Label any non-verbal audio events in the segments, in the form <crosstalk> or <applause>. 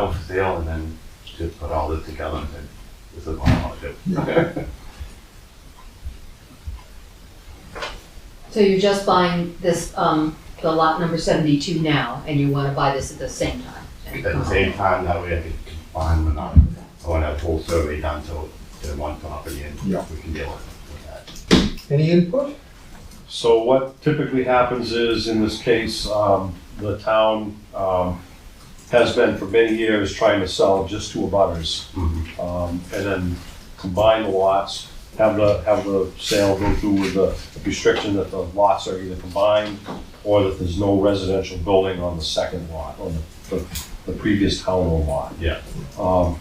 out for sale and then to put all this together and said, this is what I want to do. Okay, So you're just buying this, um, the lot number seventy-two now, and you wanna buy this at the same time? At the same time, that way I could combine them not, I want to have a whole survey done so to one property and Yeah. we can deal with that. any input? So what typically happens is, in this case, um, the town, um, has been for many years trying to sell just to abutters. Mhm. Um, and then combine the lots, have the, have the sale go through with the restriction that the lots are either combined or that there's no residential building on the second lot, on the, the, the previous town owned lot. Yeah. Um,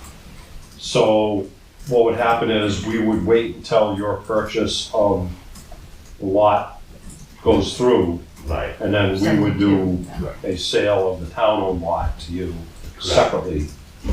so what would happen is we would wait until your purchase of the lot goes through Right, and then we would do 72, yeah. a sale of the town owned lot to you separately.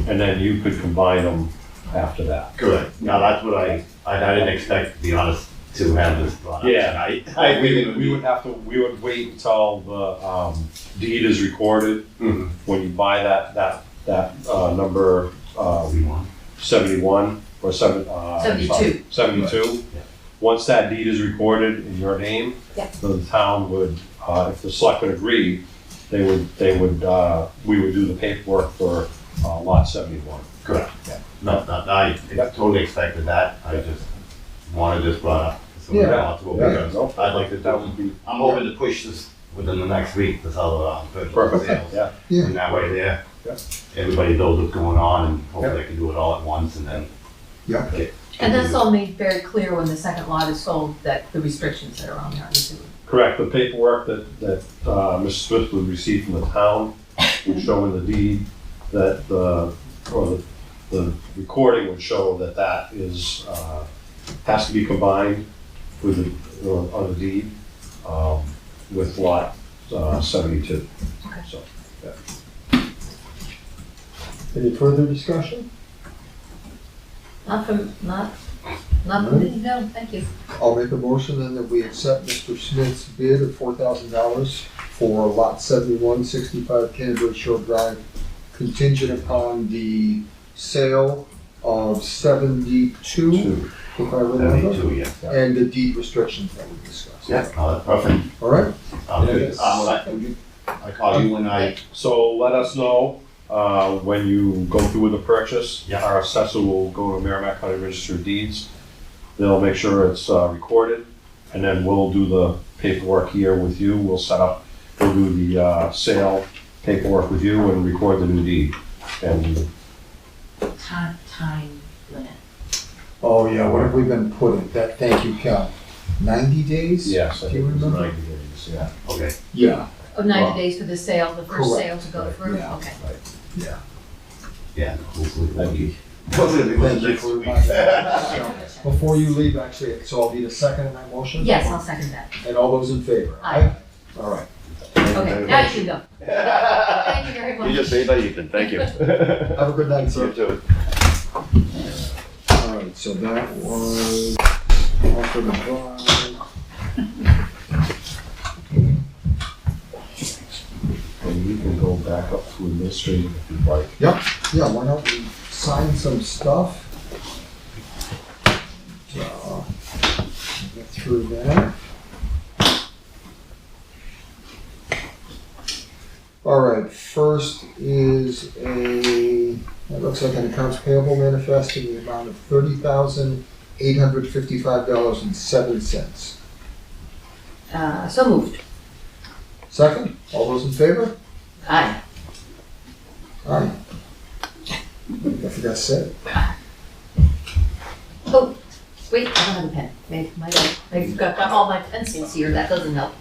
And then you could combine them after that. correct. Now, that's what I, I I didn't expect, to be honest, to have this brought up Yeah. tonight. I We would, we really would have to, we would wait until the, um, deed is recorded, Mhm. when you buy that, that, that, uh, number, uh, We want. seventy-one or seven, uh. I'm sorry, Seventy-two. Yeah. Once that deed is recorded in your name. Yeah. The town would, uh, if the selectmen agree, they would, they would, uh, we would do the paperwork for, uh, lot seventy-one. Correct. Yeah. No, no, I Yeah. totally expected that, I just wanted this brought up. So we Yeah. got to what we're doing. No? I'd like to, That would be. I'm hoping to push this within the next week, this other, um, virtual sales. Yeah. Yeah. And that way there, Yeah. everybody knows what's going on and hopefully they can do it all at once and then. Yeah. get- And that's all made very clear when the second lot is sold, that the restrictions that are on there, I'm assuming. Correct, the paperwork that, that, uh, Mr. Smith would receive from the town would show in the deed that, the or the, the recording would show that that is, uh, has to be combined with, the- on on the deed, um, with lot, uh, seventy-two. Okay. So, Any further discussion? Not from, not, not Hmm? from, no, thank you. I'll make a motion then that we accept Mr. Smith's bid of four thousand dollars for lot seventy-one sixty-five Canterbury Shore Drive contingent upon the sale of seventy-two, two. if I remember, Seventy-two, yeah. and the deed restrictions that we discussed. Yeah, oh, that's perfect. All right? I'll do Yeah. it. Um, I I call you when I, So let us know, uh, when you go through with the purchase. Yeah. Our assessor will go to Merrimack County Register of Deeds. They'll make sure it's, uh, recorded, and then we'll do the paperwork here with you. We'll set up, we'll do the, uh, sale paperwork with you and record the new deed. And time, time limit. Oh, yeah, what have we been putting? That, thank you, Cal. Ninety days? yes, I Do you think it's remember? ninety days, yeah. okay, Yeah, Oh, ninety Wow. days for the sale, the first Correct. sale to go Right, through, yeah. okay. yeah. yeah, hopefully. it'll Thank you. be- Hopefully it'll Thank be you next very week. much. So, Before you leave, actually, so I'll need a second on that motion? Yes, I'll second that. And all those in favor? Aye. All right. Okay, now you <laughs> can go. Thank you very much. You just saved my evening, thank <laughs> you. Have a good night, You sir. too. All right, so that was offered by. And you can go back up to administrative if you'd like. Yeah, why don't we sign some stuff? So, Get through that. All right, first is a, that looks like an accounts payable manifest in the amount of thirty thousand, eight hundred fifty-five dollars and seven cents. Uh, so moved. Second, all those in favor? Aye. Aye. I forgot to say. it. Oh, wait, I don't have a pen. Maybe my, I've got got all my pencils here, that doesn't help.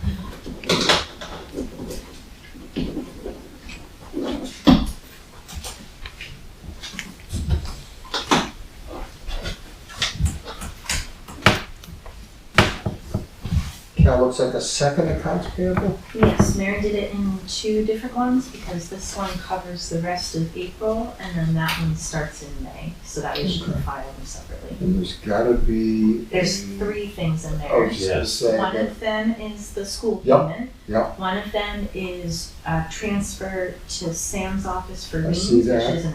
Cal, looks like a second accounts payable? Yes, Mary did it in two different ones because this one covers the rest of April and then that one starts in May. So that way she can file them separately. And there's gotta be. There's three things in Oh, there. yes. One of them is the school Yep, payment. yep. One of them is a transfer to Sam's office for I me, which see that. is an